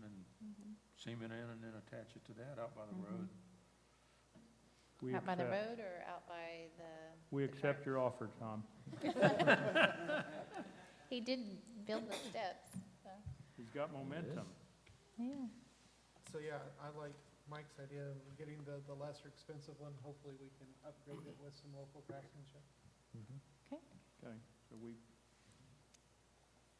Mm-hmm. cement in and then attach it to that out by the road. We Out by the accept, road or out by the? we the park? accept your offer, Tom. He did build the steps, so, He's got momentum. yeah. So, yeah, I like Mike's idea of getting the, the lesser expensive one. Hopefully, we can upgrade it with some local craftsmanship. Okay, so we,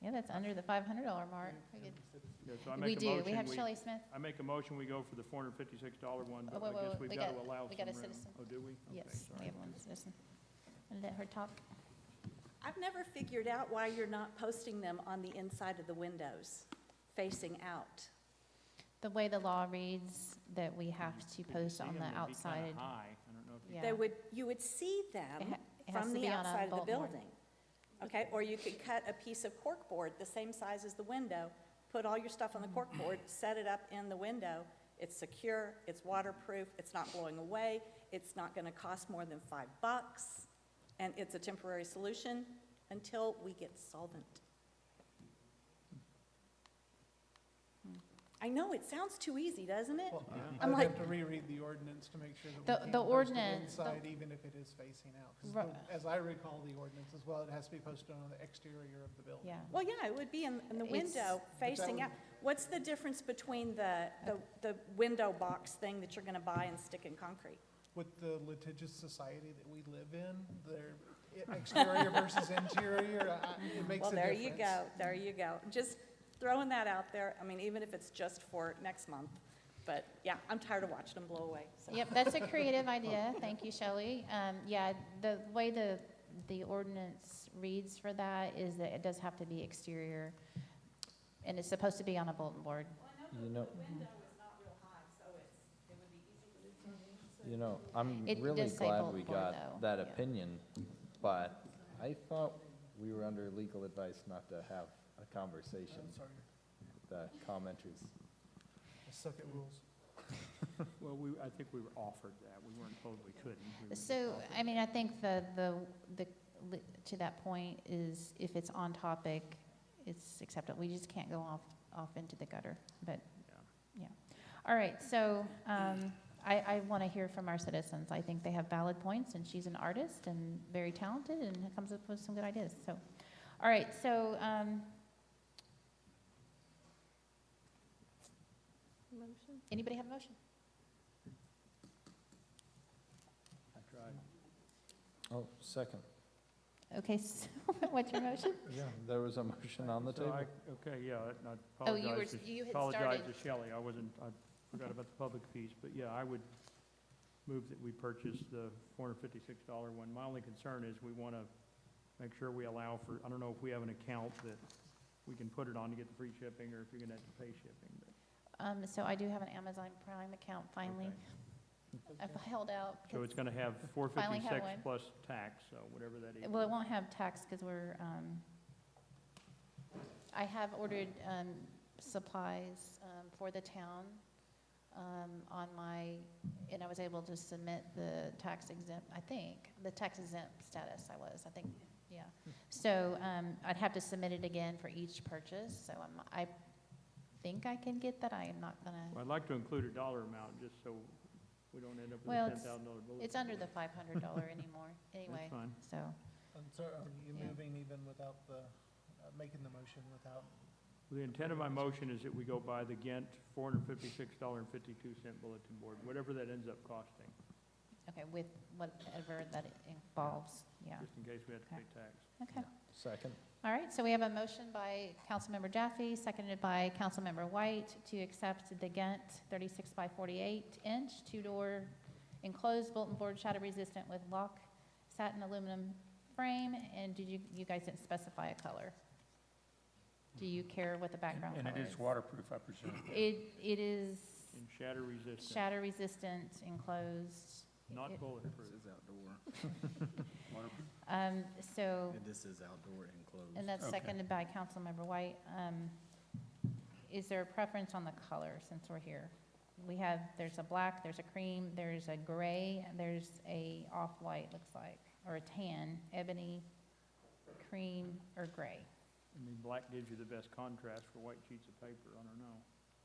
Yeah, that's under the five hundred dollar mark. We And could- consider- yeah, so I We make a do, we motion, have we, Shelley Smith, I make a motion, we go for the four hundred fifty-six dollar one, Oh, but wait, wait, I guess wait, we've we got to got- allow we some got a room. citizen. Oh, do we? Okay, yes, we sorry. have one citizen. I'll Let her talk. I've never figured out why you're not posting them on the inside of the windows, facing out. The way the law reads that we have to You can post see on them, the they'd be kinda outside, high. I don't know if you. Yeah. They would, you would see It ha- them it has to from the be on a outside of the bulletin board. building. Okay, or you could cut a piece of corkboard the same size as the window, put all your stuff on the corkboard, set it up in the window. It's secure, it's waterproof, it's not blowing away, it's not going to cost more than five bucks, and it's a temporary solution until we get solvent. Hmm. I know, it sounds too easy, doesn't it? Well, Yeah. I'd I'm have like- to reread the ordinance to make sure that we The- can the post it ordinance, the- inside, even if it is facing out. 'Cause Ru- the- As I recall the ordinance as well, it has to be posted on the exterior of the building. yeah. Well, yeah, it would be in, in the It's- window facing would- out. What's the difference between the, the, the window box thing that you're gonna buy and stick in concrete? With the litigious society that we live in, their exterior versus interior, I- I- it makes Well, a difference. there you go, there you go. Just throwing that out there. I mean, even if it's just for next month. But yeah, I'm tired of watching them blow away, so. Yep, that's a creative idea. Thank you, Shelley. Um, yeah, the way the, the ordinance reads for that is that it does have to be exterior, and it's supposed to be on a bulletin board. You know, you know, I'm It really does say glad bulletin we board, got though, that yeah. opinion, but I thought we were under legal advice not to have a conversation I'm sorry, with the commenters. I suck at rules. Well, we, I think we were offered that. We weren't told we couldn't. We were just So, offered. I mean, I think the, the, the, to that point is if it's on topic, it's acceptable. We just can't go off, off into the gutter, but, Yeah. yeah. All right, so, um, I, I want to hear from our citizens. I think they have valid points, and she's an artist and very talented and comes up with some good ideas, so. All right, so, um. Motion? Anybody have a motion? I tried. Oh, second. Okay, so, what's your motion? Yeah, there was a motion on the So I- table. Okay, yeah, and I Oh, you were- apologize, to- you had apologize to started. Shelley, I wasn't, I forgot about the public piece, but yeah, I would move that we purchase the $456 one. My only concern is we want to make sure we allow for, I don't know if we have an account that we can put it on to get the free shipping, or if you're going to have to pay shipping, but, Um, so I do have an Amazon Prime account finally. Okay. I've held out. so it's going to have Finally have 456 one. plus tax, so whatever that is. Well, it won't have tax because we're, um, I have ordered, um, supplies, um, for the town, um, on my, and I was able to submit the tax exempt, I think, the tax exempt status I was, I think, yeah. So, um, I'd have to submit it again for each purchase, so I'm, I think I can get that. I am not gonna. Well, I'd like to include a dollar amount, just so we don't end up with a Well, $10,000 it's- bill. It's under the five hundred dollar anymore, anyway, fine. so, I'm sorry, are you Yeah. um, moving even without the, uh, making the motion without The intent of my motion is that we go buy the Ghent four hundred fifty-six dollar and fifty-two cent bulletin board, whatever that ends up costing, okay, with whatever that involves, yeah, just in case we have to pay tax. okay. Second. All right, so we have a motion by Councilmember Jaffe, seconded by Councilmember White, to accept the Ghent thirty-six by forty-eight inch, two-door enclosed bulletin board, shatter-resistant with lock, satin aluminum frame, and did you, you guys didn't specify a color? Do you care what the background And color it is waterproof, I presume. It, it is And shatter resistant, Shatter resistant, enclosed. not It- bulletproof. outdoor. Waterproof. Um, so, this is outdoor enclosed. and that's Okay. seconded by Councilmember White. Um, is there a preference on the color since we're here? We have, there's a black, there's a cream, there's a gray, there's a off-white, looks like, or a tan, ebony, cream, or gray. I mean, black gives you the best contrast for white sheets of paper, I don't know.